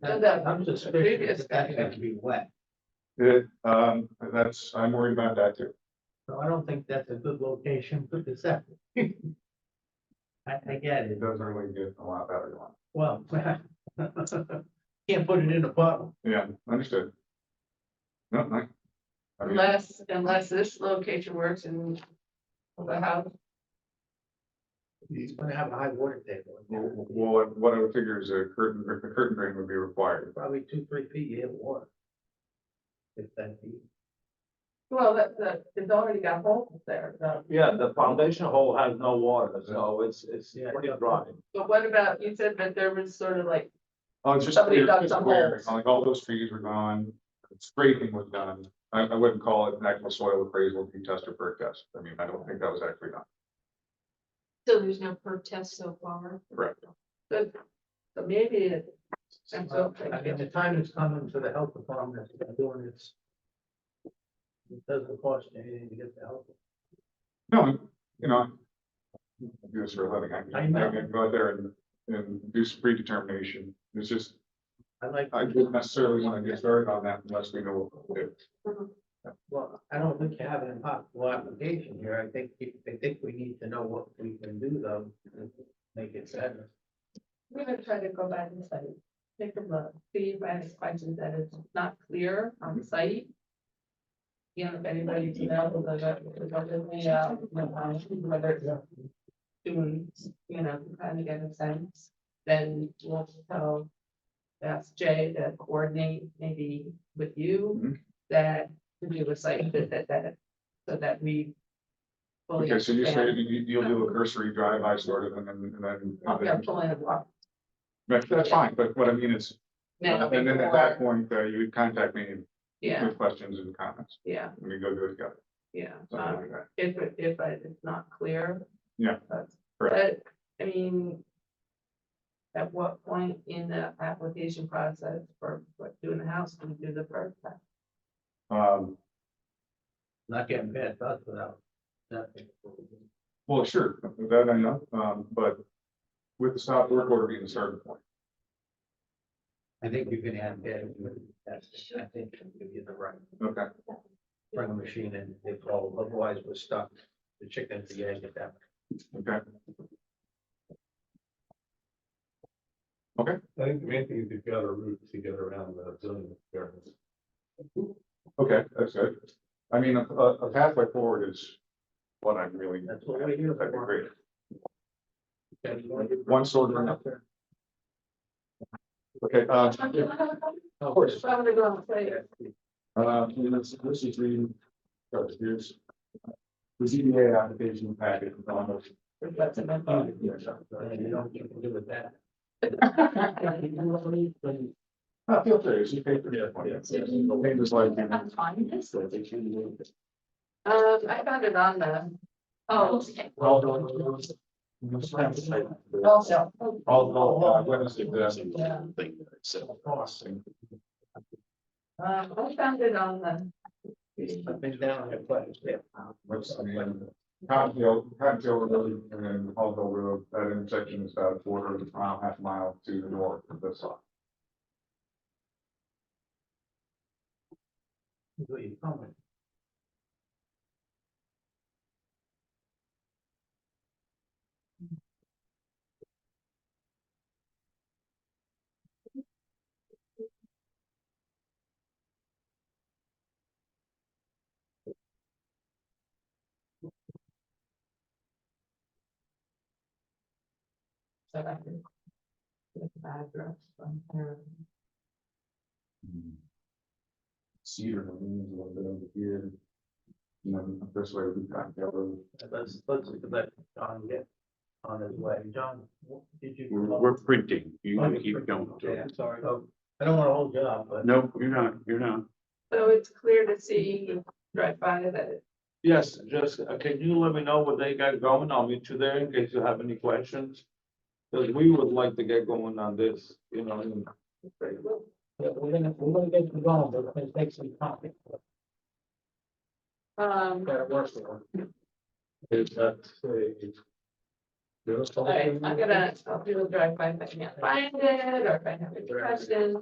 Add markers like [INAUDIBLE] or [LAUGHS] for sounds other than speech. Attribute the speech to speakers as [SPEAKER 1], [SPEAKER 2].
[SPEAKER 1] That-
[SPEAKER 2] The-
[SPEAKER 1] I'm just
[SPEAKER 2] the
[SPEAKER 1] suspicious
[SPEAKER 2] previous
[SPEAKER 1] that that's
[SPEAKER 2] guy.
[SPEAKER 1] going to be wet,
[SPEAKER 3] It, um, that's, I'm worried about that too.
[SPEAKER 1] so I don't think that's a good location for the [LAUGHS] septic. I, I get
[SPEAKER 3] It
[SPEAKER 1] it,
[SPEAKER 3] doesn't really get a lot better than one.
[SPEAKER 1] well. [LAUGHS] Can't put it in a bottle.
[SPEAKER 3] Yeah, understood. No, I. I mean,
[SPEAKER 2] Unless, unless this location works and the house,
[SPEAKER 1] He's gonna have a high water table. in there.
[SPEAKER 3] w- w- Well, what I would figure is a curtain, a curtain drain would be required.
[SPEAKER 1] Probably two, three feet, you have water. If that be.
[SPEAKER 2] well, that, that, it's already got holes there, so.
[SPEAKER 4] Yeah, the foundation hole has no water, so it's, it's
[SPEAKER 1] Yeah.
[SPEAKER 4] pretty dry.
[SPEAKER 2] But what about, you said that there was sort of like,
[SPEAKER 3] Oh, it's just
[SPEAKER 2] Somebody
[SPEAKER 3] weird,
[SPEAKER 2] dug
[SPEAKER 3] it's
[SPEAKER 2] some
[SPEAKER 3] weird.
[SPEAKER 2] holes.
[SPEAKER 3] Like all those trees were gone, scraping was done. I, I wouldn't call it an actual soil appraisal, deep test or perk test. I mean, I don't think that was actually done.
[SPEAKER 5] So there's no perk test so far.
[SPEAKER 3] Correct.
[SPEAKER 2] so so maybe it, And so-
[SPEAKER 1] Uh, I mean, the time is coming for the health department to be doing this. It doesn't cost you anything to get the help.
[SPEAKER 3] No, you know. I Do this for a living. I
[SPEAKER 1] I
[SPEAKER 3] can,
[SPEAKER 1] know.
[SPEAKER 3] I can go out there and, and do some predetermination. It's just,
[SPEAKER 1] I like.
[SPEAKER 3] I wouldn't necessarily want to get started on that unless we know what to do.
[SPEAKER 1] Well, I don't think you have an impossible application here. I think, I think we need to know what we can do though. to Make it better.
[SPEAKER 2] we're gonna try to go back and study. Take a look, see if I have questions that is not clear on site. You know, if anybody can know, the, the, the, the, uh, whether it's students, you know, kind of get a sense, then we'll tell. Ask Jay to coordinate maybe with you
[SPEAKER 3] Mhm.
[SPEAKER 2] that to do a site visit that, so that we.
[SPEAKER 1] Oh,
[SPEAKER 2] fully
[SPEAKER 3] Okay, so you say
[SPEAKER 2] understand.
[SPEAKER 3] you, you'll do a cursory drive, I sort of, and then, and then-
[SPEAKER 2] Oh,
[SPEAKER 3] and
[SPEAKER 2] Yeah,
[SPEAKER 3] then.
[SPEAKER 2] pulling a walk.
[SPEAKER 3] But That's fine, but what I mean is,
[SPEAKER 2] now
[SPEAKER 3] and then at that
[SPEAKER 2] before-
[SPEAKER 3] point, uh, you would contact me
[SPEAKER 2] Yeah,
[SPEAKER 3] with questions and comments.
[SPEAKER 2] yeah,
[SPEAKER 3] and We go do it together,
[SPEAKER 2] yeah.
[SPEAKER 3] something
[SPEAKER 2] Um,
[SPEAKER 1] Uh.
[SPEAKER 3] like that.
[SPEAKER 2] If, it- if I- it's not clear.
[SPEAKER 3] Yeah,
[SPEAKER 2] that's-
[SPEAKER 3] correct.
[SPEAKER 2] But, I mean. At what point in the application process for, for doing the house, do we do the first time?
[SPEAKER 3] Um,
[SPEAKER 1] Not getting bad thoughts without. nothing.
[SPEAKER 3] well, sure, that I know, um, but with the stop work order being the starting point.
[SPEAKER 1] I think you can have bad. that's- I think you give you the right.
[SPEAKER 3] Okay,
[SPEAKER 1] Bring a machine in, they fall, otherwise we're stuck. The chicken, the egg at that.
[SPEAKER 3] okay.
[SPEAKER 6] I think the main thing is you've got a route to get around the zoning variance.
[SPEAKER 3] Okay, that's good. I mean, a, a a pathway forward is what I'm really.
[SPEAKER 1] That's what we're here
[SPEAKER 3] That'd be
[SPEAKER 1] for.
[SPEAKER 3] great. One sword or another. Okay, uh, of course,
[SPEAKER 2] So I'm gonna go on later.
[SPEAKER 3] uh, this, this is reading. uh, Here's. The ZBA application packet. um,
[SPEAKER 2] That's enough.
[SPEAKER 3] uh, yeah, sure.
[SPEAKER 1] You don't get to do with that.
[SPEAKER 3] Uh, feel free, it's your paper. Papers like.
[SPEAKER 5] I'm fine, this.
[SPEAKER 2] Um, I found it on the, oh,
[SPEAKER 3] Well, no, no, no, no.
[SPEAKER 2] also, um,
[SPEAKER 3] All, all, uh, witness exemption.
[SPEAKER 2] yeah.
[SPEAKER 1] Of course.
[SPEAKER 2] Um, I found it on the,
[SPEAKER 1] I've been down there quite a bit.
[SPEAKER 3] What's the name? Cottontail, Cottontail Road and Hallville Road, that intersection is about a quarter of a mile, half mile to the north of this lot.
[SPEAKER 1] Where you coming?
[SPEAKER 2] so I can. With the address from here.
[SPEAKER 3] Cedar, I mean, is a little bit over here. You know, this way we Cottontail Road.
[SPEAKER 1] Let's, let's let John get on his way. John, what did you?
[SPEAKER 7] We're, we're printing. You can keep going.
[SPEAKER 1] Okay, I'm sorry. Oh, I don't want to hold you up, but.
[SPEAKER 7] Nope, you're not, you're not.
[SPEAKER 2] So it's clear to see right by that it
[SPEAKER 4] Yes, just, uh, can you let me know what they got going? I'll meet you there in case you have any questions. Because we would like to get going on this, you know, and
[SPEAKER 1] Yeah, we're gonna, we're gonna get you going, but it's gonna take some time.
[SPEAKER 2] Um,
[SPEAKER 1] Gotta work for it.
[SPEAKER 6] Is that a?
[SPEAKER 2] alright, I'm gonna, I'll do a drive by if I can't find it, or if I have any questions.